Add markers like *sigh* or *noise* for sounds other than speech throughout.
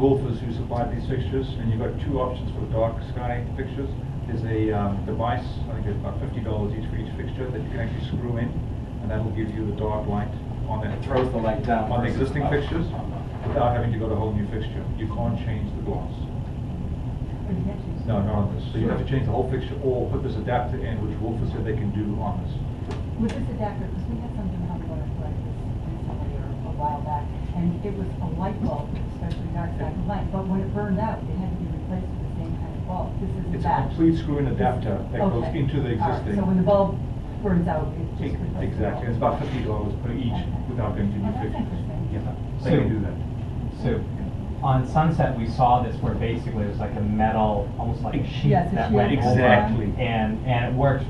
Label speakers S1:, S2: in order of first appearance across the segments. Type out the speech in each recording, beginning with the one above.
S1: Wolfers who supplied these fixtures, and you've got two options for the dark sky fixtures. There's a um, device, I think it's about fifty dollars each for each fixture, that you can actually screw in, and that'll give you the dark light on
S2: It
S1: it,
S2: throws the light down.
S1: on the
S2: versus
S1: existing
S2: up.
S1: fixtures, without having to go to a whole new fixture. You can't change the glass. No, not on this. So you have to change the whole fixture, or put this adapter in, which Wolfers said they can do on this.
S3: With this adapter, because we had something on the like this recently or a while back, and it was a light bulb, especially dark side of light, but when it burned out, it had to be replaced with the same kind of bulb. This isn't
S1: It's a
S3: that.
S1: complete screw-in adapter that goes
S3: Okay.
S1: into the
S3: All right,
S1: existing.
S3: So when the bulb burns out, it just replaces the bulb.
S1: Exactly, it's about fifty dollars per each without going to new
S3: Oh, that's
S1: fixtures.
S3: interesting.
S1: Yeah, they can do that.
S4: So on Sunset, we saw this where basically it was like a metal, almost like a sheet
S3: Yes, a
S4: that
S3: sheet.
S4: went over.
S1: Exactly.
S4: And, and it works,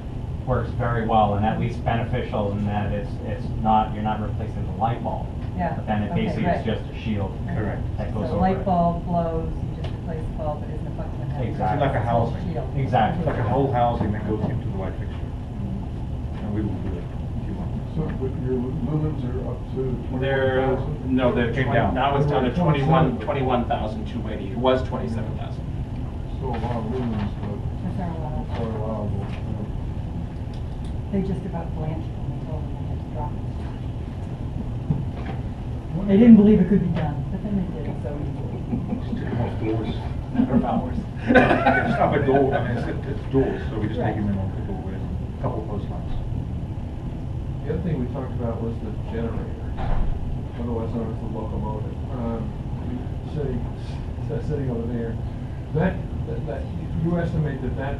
S4: works very well and at least beneficial in that it's, it's not, you're not replacing the light bulb.
S3: Yeah,
S4: But then it
S3: okay,
S4: basically
S3: right.
S4: is just a shield
S1: Correct.
S4: that
S3: So
S4: goes over it.
S3: the light bulb blows, you just replace the bulb, it isn't a fucking. adapter.
S4: Exactly.
S1: It's like a housing.
S3: Shield.
S4: Exactly.
S1: It's like a whole housing that goes into the light fixture. And we will do it if you want.
S5: So, but your lumens are up to twenty-one
S2: They're,
S5: thousand?
S2: no, they're
S1: Came
S2: 20
S1: down.
S2: now it's down to
S5: They were
S2: 21,
S5: 27.
S2: 21,280. It was 27,000.
S5: So a lot of
S3: That's our law.
S5: lumens, but it's not allowable.
S3: uh, They just about blanched when they told them they had to drop it.
S5: you know.
S3: They didn't believe it could be done, but then they did, it, so easily.
S1: Just took them off doors.
S2: Number of *laughs* hours.
S1: Yeah, It's up a door, I mean, it's, it's doors, so we just take them in off the doorways, a couple of post lights.
S5: The other thing we talked about was the generator, otherwise known as the locomotive. Um, Sitting, s- sitting over there, that, that- that, you estimate that that,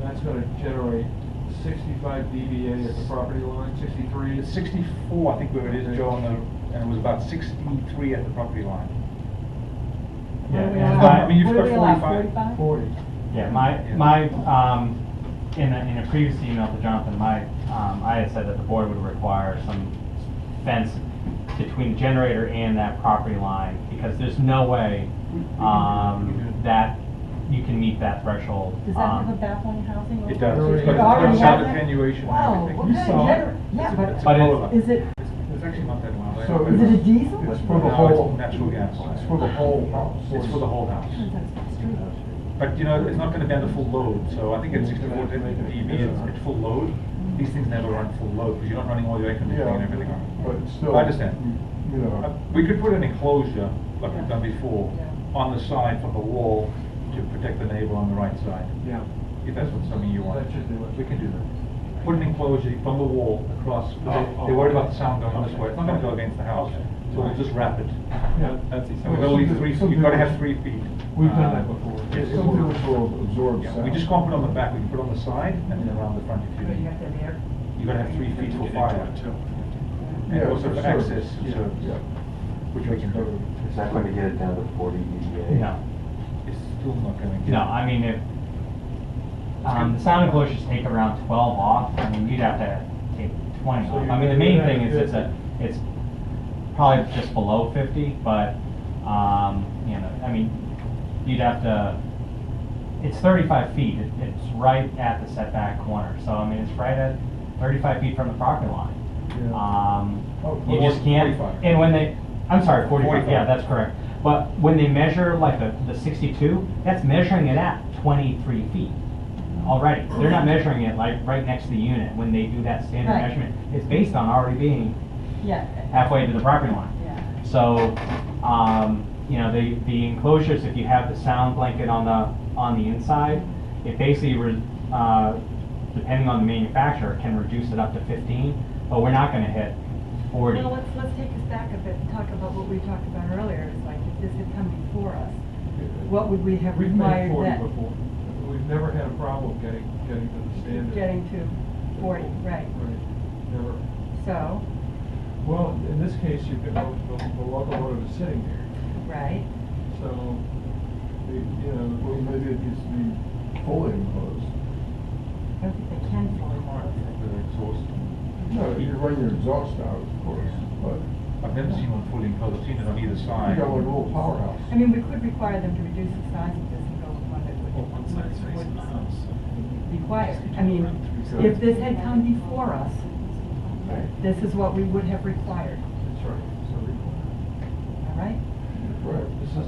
S5: that's gonna generate sixty-five dBA at the property line, sixty-three?
S1: It's sixty-four, I think where it is, Joe, on the- and it was about sixty-three at the property line.
S4: Yeah,
S3: What do we
S4: and
S3: allow?
S4: my-
S1: I mean, you've
S3: What
S1: got
S3: do we allow,
S1: 45.
S5: Forty.
S4: Yeah, my,
S1: Yeah.
S4: my, um, in a, in a previous email to Jonathan, my, um, I had said that the board would require some fence between the generator and that property line, because there's no way, um, that you can meet that threshold.
S3: Does that have a
S4: Um,
S3: baffling housing?
S1: It
S3: overlay?
S1: does, it's
S5: It
S1: got
S5: already
S1: it's got
S3: has it?
S1: attenuation
S3: Wow,
S1: and everything.
S3: what You kind of saw it. gener- yeah,
S1: It's a-
S3: but-
S1: it's a
S4: But it-
S1: Corolla.
S3: Is it,
S1: It's actually not that loud.
S5: So
S3: is it a diesel?
S5: It's for the
S1: No, it's
S5: whole.
S1: natural gas.
S5: It's for the whole house.
S1: It's for the whole house.
S3: Turns out it's not true.
S1: But you know, it's not gonna be under full load, so I think at sixty-four dB, it's at full load. These things never run full load, because you're not running all your air conditioning and
S5: Yeah,
S1: everything on it.
S5: but still.
S1: I understand.
S5: You
S1: Uh,
S5: know,
S1: We could put an enclosure, like we've done before,
S3: Yeah.
S1: on the side from the wall to protect the neighbor on the right side,
S5: yeah.
S1: if that's what something you want.
S5: That should do it.
S1: We can do that. Put an enclosure from the wall across, because
S5: Oh, oh,
S1: they- they're worried about the
S5: okay.
S1: sound going this way, it's not gonna go against the house, so we'll just wrap it.
S5: Yeah,
S2: That's easy.
S1: And we've only three, you've gotta have three feet.
S5: We've done
S1: Uh,
S5: that before.
S1: yes, it
S5: Some
S1: will.
S5: doors will absorb
S1: Yeah,
S5: sound.
S1: we just can't put it on the back, we can put it on the side and then around the front if you
S3: But you
S1: need.
S3: have to have air.
S1: You've got to have three feet
S2: You
S1: for
S2: get into
S1: fire,
S2: it, too.
S1: and
S5: Yeah,
S1: also
S5: for
S1: for
S5: service.
S1: access,
S5: Yeah,
S1: so,
S5: yeah.
S1: which we can do.
S6: It's not going to get it down to forty E dBA.
S4: No,
S1: It's still not going to get.
S4: no, I mean, if, um, the sound enclosures take around twelve off, I mean, you'd have to take twenty
S5: So
S4: off.
S5: you-
S4: I mean, the main
S5: you'd have
S4: thing is
S5: to-
S4: it's a, it's probably just below fifty, but, um, you know, I mean, you'd have to, it's thirty-five feet, It- it's right at the setback corner, so I mean, it's right at thirty-five feet from the property line.
S5: Yeah.
S4: Um,
S5: Oh,
S4: you just can't,
S1: 45.
S4: and when they, I'm sorry, forty-five,
S1: 45.
S4: yeah, that's correct. But when they measure like the, the sixty-two, that's measuring it at twenty-three feet already. They're not measuring it like right next to the unit when they do that standard
S3: Right.
S4: measurement. It's based on already being
S3: Yeah,
S4: halfway to the property line.
S3: yeah.
S4: So, um, you know, the, the enclosures, if you have the sound blanket on the, on the inside, it basically, re- uh, depending on the manufacturer, can reduce it up to fifteen, but we're not gonna hit forty.
S3: Well, let's, let's take this back a bit and talk about what we talked about earlier, it's like, if this had come before us, what would we have
S5: We've made
S3: required
S5: forty
S3: then?
S5: before. We've never had a problem getting, getting to the standard.
S3: Getting to forty, right,
S5: Right, never.
S3: so,
S5: Well, in this case, you've got, the, the locomotive is sitting there,
S3: right,
S5: so, the- you know, well, maybe it needs to be fully enclosed.
S3: I don't think they can fully close it.
S1: The exhaust.
S5: No, you run your exhaust out, of course, but
S1: I've never seen one fully enclosed, I've seen it on either
S5: you
S1: side.
S5: got one little powerhouse.
S3: I mean, we could require them to reduce the size of this and go with one that would.
S2: Well, one side's
S3: would
S2: facing the house.
S3: Required, I mean, if this had come before us,
S5: Right.
S3: this is what we would have required,
S5: That's right, so,
S3: all right?
S5: right, this is